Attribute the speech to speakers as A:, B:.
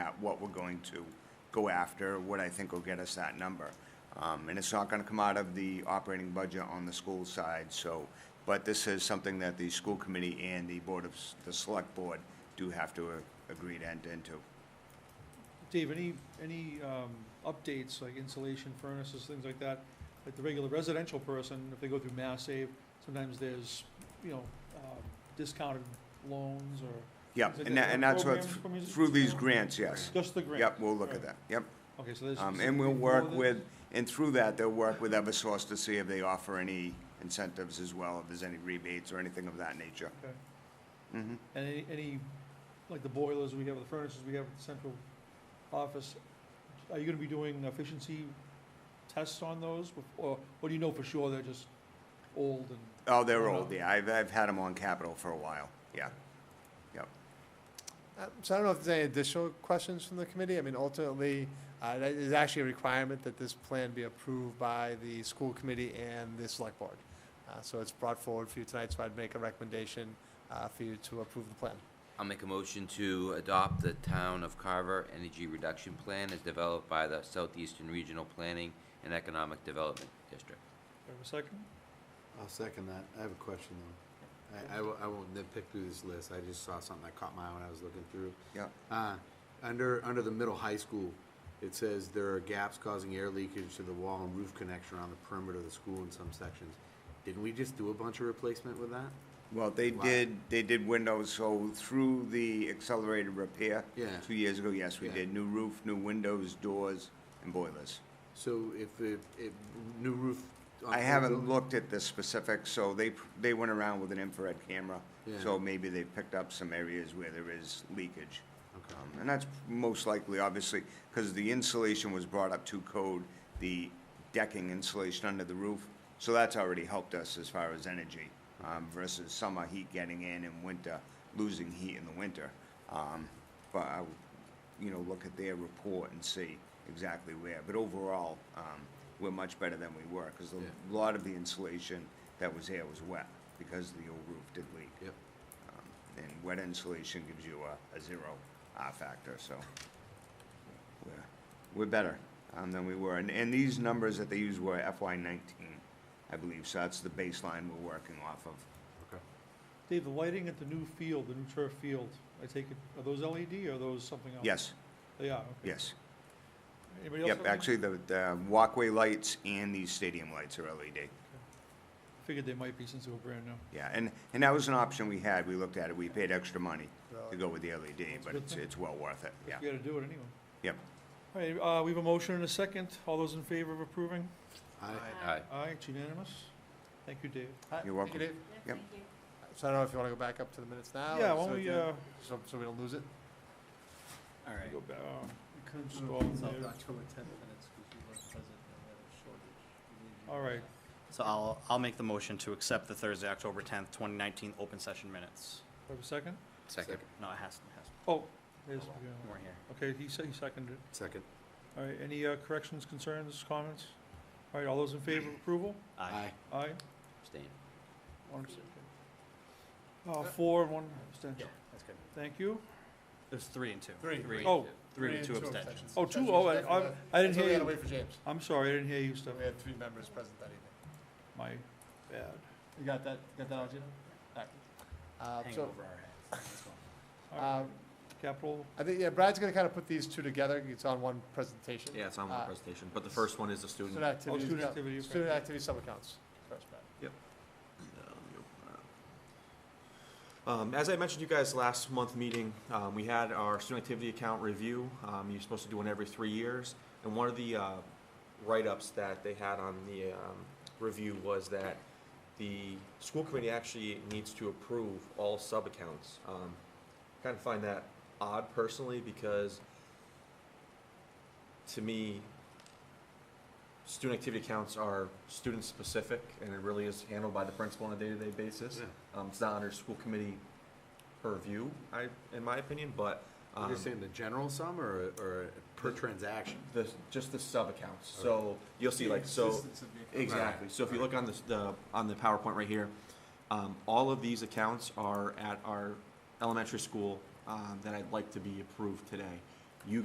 A: at what we're going to go after, what I think will get us that number. Um, and it's not gonna come out of the operating budget on the school side, so, but this is something that the school committee and the board of, s- the select board do have to uh, agree to enter into.
B: Dave, any, any um, updates, like insulation furnaces, things like that? Like the regular residential person, if they go through Mass Save, sometimes there's, you know, um, discounted loans or
A: Yep,
B: Is it
A: and that,
B: a
A: and that's what,
B: program from music
A: through these
B: school?
A: grants, yes.
B: just the grant?
A: Yep, we'll look at
B: Right.
A: that, yep.
B: Okay, so there's.
A: Um, and we'll work with, and through that, they'll work with Eversource to see if they offer any incentives as well, if there's any rebates or anything of that nature.
B: Okay.
A: Mhm.
B: And any, any, like the boilers we have, the furnaces we have at the central office, are you gonna be doing efficiency tests on those? bef- Or, or do you know for sure they're just old and?
A: Oh, they're
B: Oh, no.
A: old, yeah, I've, I've had them on capital for a while, yeah.
C: Uh, So I don't know if there's any additional questions from the committee. I mean, ultimately, uh, that is actually a requirement that this plan be approved by the school committee and the select board. Uh, So it's brought forward for you tonight, so I'd make a recommendation uh, for you to approve the plan.
D: I'll make a motion to adopt the Town of Carver Energy Reduction Plan as developed by the Southeastern Regional Planning and Economic Development District.
B: Do I have a second?
E: I'll second that. I have a question though. I, I will, I won't nitpick through this list. I just saw something that caught my eye when I was looking through.
A: Yeah.
E: Uh, under, under the middle high school, it says there are gaps causing air leakage to the wall and roof connection around the perimeter of the school in some sections. Didn't we just do a bunch of replacement with that?
A: Well, they
E: Wow.
A: did, they did windows, so through the accelerated repair.
E: Yeah.
A: Two years ago, yes, we
E: Yeah.
A: did, new roof, new windows, doors, and boilers.
E: So if, if, if new roof. on
A: I
E: the
A: haven't
E: building-
A: looked at the specifics, so they, they went around with an infrared camera,
E: Yeah.
A: so maybe they picked up some areas where there is leakage.
E: Okay.
A: Um, And that's most likely, obviously, because the insulation was brought up to code, the decking insulation under the roof. So that's already helped us as far as energy um, versus summer heat getting in and winter, losing heat in the winter. Um, But I, would, you know, look at their report and see exactly where. But overall, um, we're much better than we were because a
E: Yeah.
A: lot of the insulation that was there was wet because the old roof did leak.
E: Yep.
A: Um, And wet insulation gives you a, a zero R factor, so we're, we're better um, than we were. And, and these numbers that they used were FY nineteen, I believe, so that's the baseline we're working off of.
E: Okay.
B: Dave, the lighting at the new field, the new turf field, I take it, are those LED or are those something else?
A: Yes,
B: They are, okay.
A: yes.
B: Anybody else? have
A: Yep,
B: any-
A: actually, the, the walkway lights and these stadium lights are LED.
B: Figured they might be since they were brand new.
A: Yeah, and, and that was an option we had. We looked at it. We paid extra money to go with the LED,
B: That's a
A: but
B: good
A: it's,
B: thing.
A: it's well worth it, yeah.
B: You gotta do it anyway.
A: Yep.
B: All right, uh, we have a motion and a second. All those in favor of approving?
E: I,
D: Aye.
B: Aye, it's unanimous. Thank you, Dave.
C: Uh,
A: You're welcome.
C: thank you, Dave.
A: Yep.
C: So I don't know if you want to go back up to the minutes now?
B: Yeah,
C: or
B: why
C: so
B: don't we,
C: you-
B: uh,
C: So, so we don't lose it?
F: All right.
B: go back, uh, scroll there.
F: October tenth minutes, because you weren't present and we had a shortage.
B: All right,
F: So I'll, I'll make the motion to accept the Thursday, October tenth, twenty nineteen open session minutes.
B: have a second?
D: Second.
F: No, it has, it has,
B: Oh, there's, yeah.
F: we're here.
B: okay, he said, he seconded it.
E: Second.
B: All right, any uh, corrections, concerns, comments? All right, all those in favor of approval?
F: Aye.
B: Aye.
D: Abstain.
B: One abstention. Uh, four, one abstention.
F: That's good.
B: Thank you.
F: There's three and two.
C: Three.
F: Three,
B: Oh,
F: three and two abstentions.
B: Oh, two, oh, I- I- I didn't
C: That's why
B: hear
C: we had to
B: you.
C: wait for James.
B: I'm sorry, I didn't hear you,
C: So
B: Steph.
C: we had three members present that evening.
B: My bad.
C: You got that, got that, Algina? Uh,
F: Hang
C: so,
F: over our heads. Let's go.
B: All right.
C: um,
B: Capital,
C: I think, yeah, Brad's gonna kind of put these two together, it's on one presentation.
G: Yeah, it's on one
C: Uh,
G: presentation, but the first one is the student.
C: Student
B: oh,
C: activities,
B: student
C: no,
B: activity. okay.
C: student activity sub-accounts. First, Brad.
G: Yeah, let me open that up. Um, as I mentioned to you guys last month meeting, um, we had our student activity account review. Um, you're supposed to do one every three years. And one of the, uh, write-ups that they had on the, um, review was that the school committee actually needs to approve all sub-accounts. Um, kind of find that odd personally because to me, student activity accounts are student-specific and it really is handled by the principal on a day-to-day basis. Um, it's not under school committee purview, I, in my opinion, but,
E: You're
G: um,
E: just saying the general sum or, or per transaction?
G: the, just the sub-accounts, so, you'll see, like, so, exactly, so if you look on this, the, on the PowerPoint right here, um, all of these accounts are at our elementary school, um, that I'd like to be approved today.